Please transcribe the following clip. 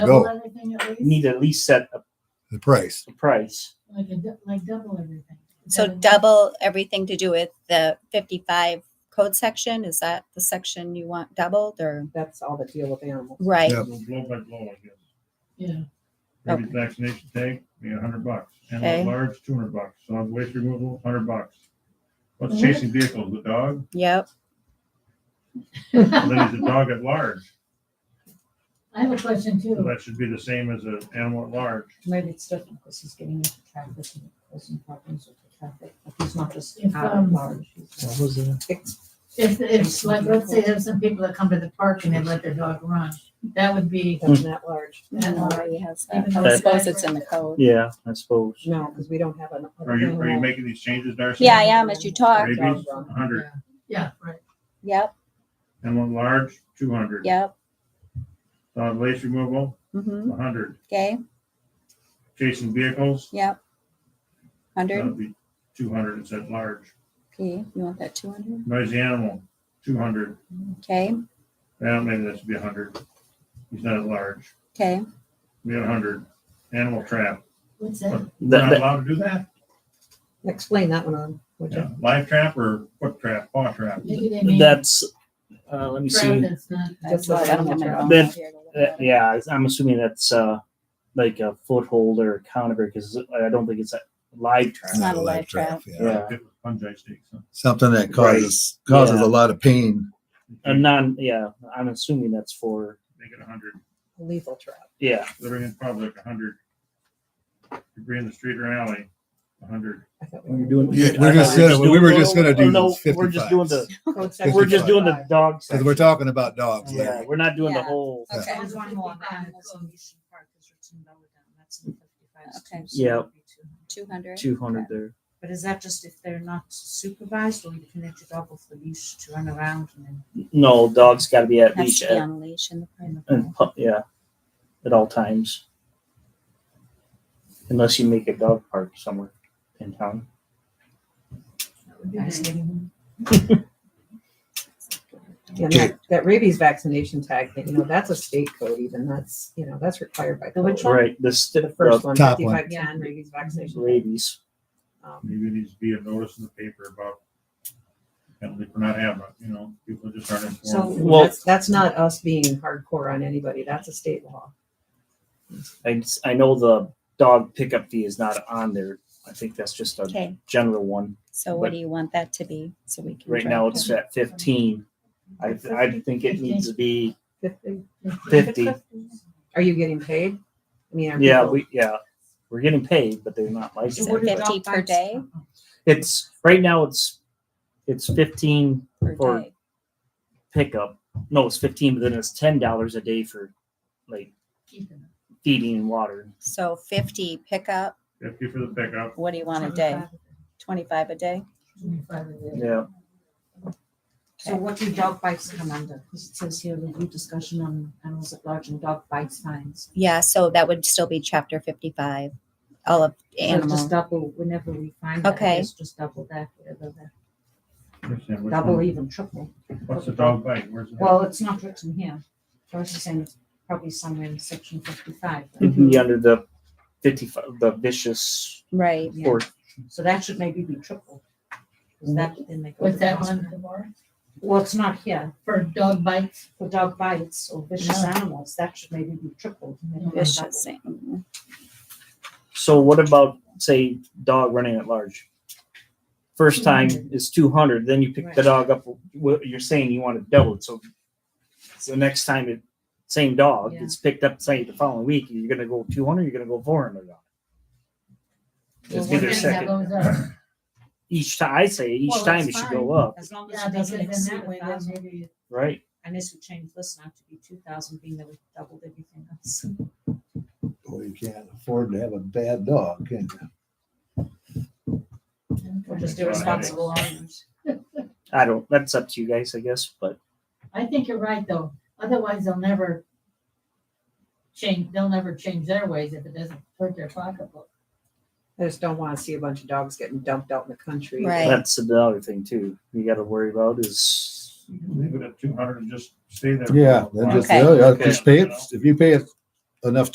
Go. Double everything at You need least? to at least set a the price. a price. Like a, dou- like double everything. Is So that enough? double everything to do with the fifty-five code section, is that the section you want doubled or? That's all that deal with animals. Right, Yep. Blow by blow, I guess. Yeah, Rabies vaccination tag, be a hundred bucks. Okay. Animal at large, two hundred bucks. Solid waste removal, hundred bucks. What's Mm-hmm. Mhm. chasing vehicles? The dog? yep, And Then it's a dog at large. I have a question So too. that should be the same as an animal at large. Maybe it's different because he's getting into traffic and causing problems with the traffic. Like he's not just If, out at um, large. he's- was it? It's If, if, like, let's say there's some people that come to the park and they let their dog run, that would be, That's not large. and uh, already has that. Even I though- suppose it's in the code. Yeah, I suppose. No, because we don't have an. an Are you, are you animal making these changes, Darcy? Mm-hmm. Yeah, I am, as you talk, Rabies, dog run. hundred. yeah, right. yep, Animal at large, two hundred. yep, Solid waste removal, hmm hundred. okay, Chasing vehicles, yep. Hundred, that'd be two hundred. It's at large. okay, you want that two hundred, Noisy animal, two hundred. okay, Well, maybe that should be hundred. He's not at large. okay, We have hundred. Animal trap, What's that? We're That- not that- allowed to do that? Explain that one on, would you? Yeah, live trap or foot trap, paw trap? Maybe they mean. that's, uh, let me Right, see. that's not- that's why I don't have my phone Then- up here to look Uh, at it. Yeah, it's- I'm assuming that's, uh, like a foothold or a counter because I don't think it's a live It's trap. not a live trap. yeah. Yeah. Fungi stakes, huh? Something that causes causes Yeah. a lot of pain. A non, yeah, I'm assuming that's for, Make it a hundred, Lethal trap. yeah, living in public, a hundred. Debris in the street or alley, a hundred. I thought when we you're doing. Yeah, we're just gonna- we were just gonna do No, this we're just doing 55s. the, Code section we're just doing the 55. dog Because section. we're talking about dogs, Yeah, Larry. we're not doing the Yeah. whole, Okay. There was one more around Yeah. this Mission Park, there's a tin dollar down, that's in the 55s too, Okay. so that Yeah. would be 200. Two hundred. two hundred there. But is that just if they're not supervised or you can let your dog off the leash to run around and then? No, dog's gotta be at Has leash to be at, on a leash in the park. in the and, pu- yeah, at all times. Unless you make a dog park somewhere in town. that would be Nice nice. getting- And that, that rabies vaccination tag thing, you know, that's a state code even, that's, you know, that's required by. The which code. one? Right, this The first one, Top one. fifty-five ten, rabies vaccination. tag. rabies. Um, Maybe it needs to be a notice in the paper about penalty for not having, it, you know, people just aren't So informed. Well- that's, that's not us being hardcore on anybody, that's a state law. I, s- I know the dog pickup fee is not on there. I think that's just a Okay, general one. so what But- do you want that to be, so we can? Right track now it? it's at fifteen. I, I think it needs to be Fifty? fifty. Are you getting paid? I mean, are Yeah, people- we, yeah, we're getting paid, but they're not So licensed. what are dog 50 per bites? day? It's, right now it's, it's fifteen Per for day. pickup. No, it's fifteen, but then it's ten dollars a day for like Keep it. feeding and water. So fifty pickup, Fifty for the pickup, what do you want a day? Twenty-five a day? Twenty-five of it. Yeah, So what do dog bites come under? Because it says here review discussion on animals at large and dog bites fines. Yeah, so that would still be chapter fifty-five, all of So Just animal. double, whenever we find that, Okay. I guess just double that, whatever that, Understand which double one- even triple. what's the dog bite, where's it? Well, it's not written here. I was just saying it's probably somewhere in section fifty-five. right? it'd be under the fifty-five, the vicious Right, Yeah. or So that should maybe be triple. Is that, then they go. What's to that hospital. one for? Well, it's not here. For dog bites? For dog bites or vicious No. animals, that should maybe be tripled. maybe not vicious, animal. So what about say dog running at large? First time 200. is two hundred, then you pick the Right. dog up. What you're saying you want to double it, so so next time it same dog Yeah. gets picked up say the following week, you're gonna go two hundred, you're gonna go four hundred. Well, It's we're either gonna That second goes up. each time. I say each Well, time it that's should go fine. up, double. As long as Yeah, it because doesn't in exceed that way, a then thousand. maybe right? Unless we change this now to be two thousand, being that we doubled everything else. Well, you can't afford to have a bad dog, can you? We're just irresponsible owners. I don't. That's up to you guys, I guess. But I think you're right, though. Otherwise, they'll never change, they'll never change their ways if it doesn't hurt their pocketbook. I just don't wanna see a bunch of dogs getting dumped out in the country. Right. that's another thing too. You got to worry about is Leave it at two hundred and just stay there. Yeah, for a then while. just, Okay. yeah, yeah, just pay it, if you pay it enough